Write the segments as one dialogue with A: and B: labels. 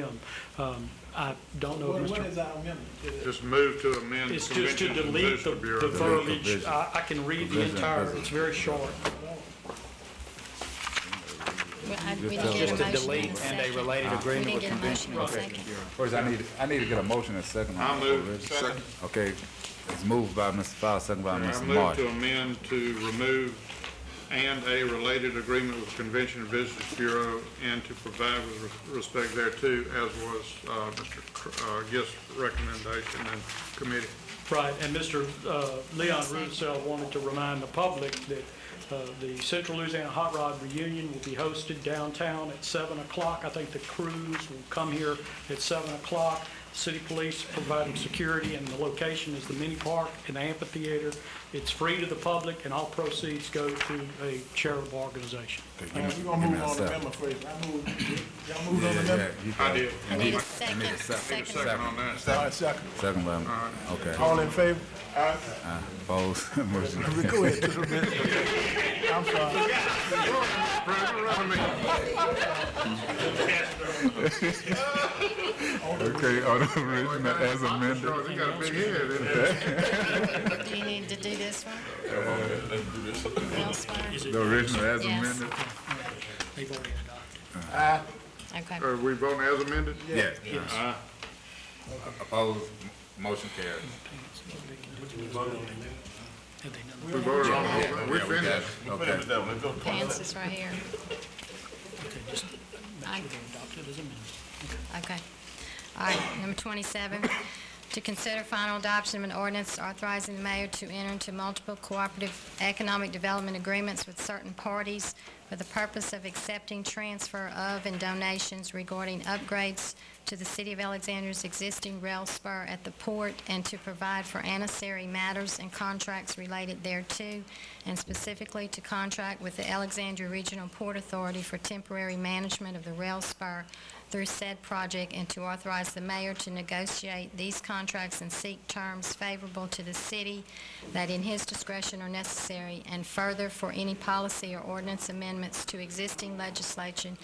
A: them. Um, I don't know
B: What
A: if
B: what
A: Mr.
B: is our amendment? Is it-
C: Just move to amend
A: It's just to
C: Conventions and
A: delete the
C: Visitors
A: the
C: Bureau.
A: verbiage. I, I can read the entire, it's very short.
D: Well, I- We didn't get a
E: Just to
D: motion
E: delete
D: and a
E: and a
D: second.
E: related
D: We
E: agreement
D: didn't
E: with
D: get a motion
E: convention.
D: and a
E: Okay.
D: second.
F: First, I need, I need to get a motion and second. on
C: I'll
F: that
C: move.
F: already.
C: Second.
F: Okay, it's moved by Mr. Fowler, second by
C: I move
F: Mr.
C: to
F: Martin.
C: amend to remove and a related agreement with Convention and Visitors Bureau and to provide with res- respect thereto, as was uh, Mr. Cr- uh, Gist's recommendation and committee.
A: Right, and Mr. uh, Leon Russell wanted to remind the public that uh, the Central Louisiana Hot Rod Reunion will be hosted downtown at 7 o'clock. I think the crews will come here at 7 o'clock. City police providing security, and the location is the mini park and the amphitheater. It's free to the public, and all proceeds go to a charitable organization.
F: Okay, give
B: All
F: me-
B: right, We're gonna
F: give me
B: move
F: a
B: on the
F: second.
B: amendment first. I move, y'all move
F: Yeah,
B: on the
F: yeah,
B: amendment.
F: you
C: I
F: got it.
C: did.
D: I need a
F: I need a
D: second,
F: second.
D: second.
C: Second on
B: All
C: that.
B: right, second.
F: Second by, okay,
B: All in favor? All right,
F: opposed, motion.
B: go ahead. I'm sorry.
F: Okay, on the original as amended.
C: Sure, they got a big head, isn't it?
D: Do you need to do this one? Elsewhere?
F: The original as
D: Yes.
F: amended?
A: They've already adopted.
B: Aye.
D: Okay.
C: Are we voting as amended?
F: Yes. Opposed, motion carries.
A: Have they done
C: We voted on the whole thing. We
F: Yeah, we got
C: finished.
F: it. Okay,
D: Pants is right here. I-
A: adopted as amended?
D: Okay. All right, number 27, to consider final adoption of an ordinance authorizing the mayor to enter into multiple cooperative economic development agreements with certain parties for the purpose of accepting transfer of and donations regarding upgrades to the City of Alexandria's existing rail spur at the port and to provide for ancillary matters and contracts related thereto, and specifically to contract with the Alexandria Regional Port Authority for temporary management of the rail spur through said project and to authorize the mayor to negotiate these contracts and seek terms favorable to the city that in his discretion are necessary, and further for any policy or ordinance amendments to existing legislation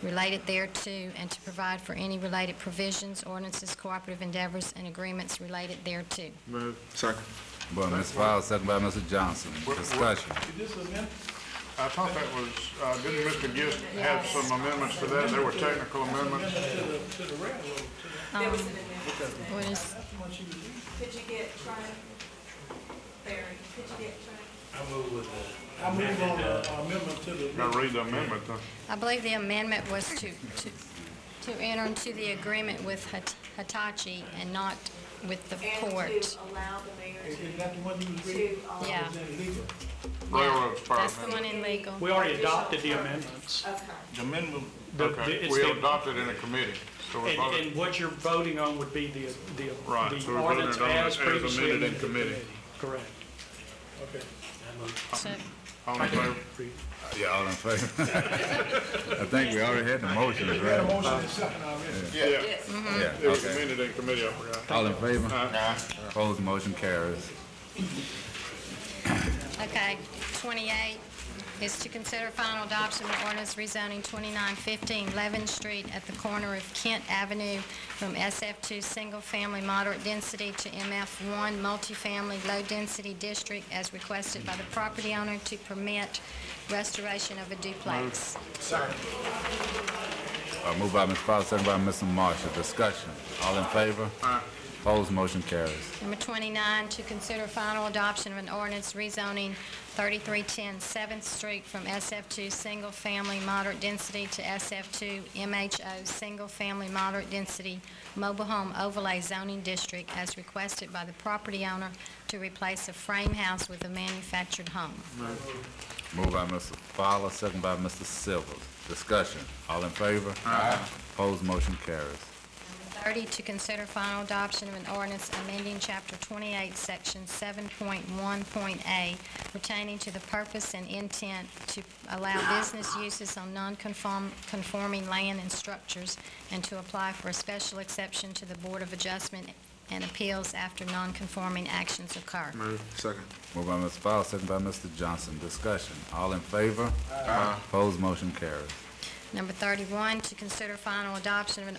D: related thereto, and to provide for any related provisions, ordinances, cooperative endeavors, and agreements related thereto.
C: Move.
F: but Mr. Fowler, second by Mr. Johnson, discussion.
B: Is this amendment?
C: I thought that was, uh, didn't Mr. Gist have some amendments for that? There were technical amendments.
G: There was an amendment.
D: What is,
G: Could you get Trent? Barry, could you get Trent?
B: I move on the amendment to the.
C: Got to read the amendment, though.
D: I believe the amendment was to, to, to enter into the agreement with Hit- Hitachi and not with the port.
G: And to allow the mayor
B: Is
G: to,
B: that the one you was reading?
G: to, um,
D: Yeah.
B: Is that legal?
C: Railroad spur
D: That's the one
C: amendment.
D: in legal.
A: We already adopted the amendments.
G: Okay.
A: The- the-
C: Okay,
A: it's
C: we
A: the-
C: adopted in a committee, so we
A: And, and
C: voted.
A: what you're voting on would be the, the
C: Right, so
A: the
C: we're voting
A: ordinance
C: on it
A: as
C: as
A: previously
C: amended in
A: amended in
C: committee.
A: committee. Correct.
B: Okay.
D: So-
C: All in favor?
F: Yeah, all in favor? I think we already had the motion,
B: We had a
F: right?
B: motion and second already.
C: Yeah,
F: Yeah,
C: it was
F: okay.
C: amended in committee, I forgot.
F: All in favor?
C: Uh,
F: Opposed, motion carries.
D: Okay, 28 is to consider final adoption of ordinance rezoning 2915 Levin Street at the corner of Kent Avenue from SF2 Single Family Moderate Density to MF1 Multifamily Low Density District as requested by the property owner to permit restoration of a duplex.
F: Uh, moved by Mr. Fowler, second by Mr. Marshall, discussion. All in favor? Opposed, motion carries.
D: Number 29, to consider final adoption of an ordinance rezoning 3310 7th Street from SF2 Single Family Moderate Density to SF2 MHO Single Family Moderate Density Mobile Home Overlay Zoning District as requested by the property owner to replace a frame house with a manufactured home.
F: Moved by Mr. Fowler, second by Mr. Silvers, discussion. All in favor? Aye. Opposed, motion carries.
D: 30, to consider final adoption of an ordinance amending Chapter 28, Section 7.1.A pertaining to the purpose and intent to allow business uses on non-conforming land and structures and to apply for a special exception to the Board of Adjustment and Appeals after non-conforming actions occur.
F: Moved by Mr. Fowler, second by Mr. Johnson, discussion. All in favor? Aye. Opposed, motion carries.
D: Number 31, to consider final adoption of an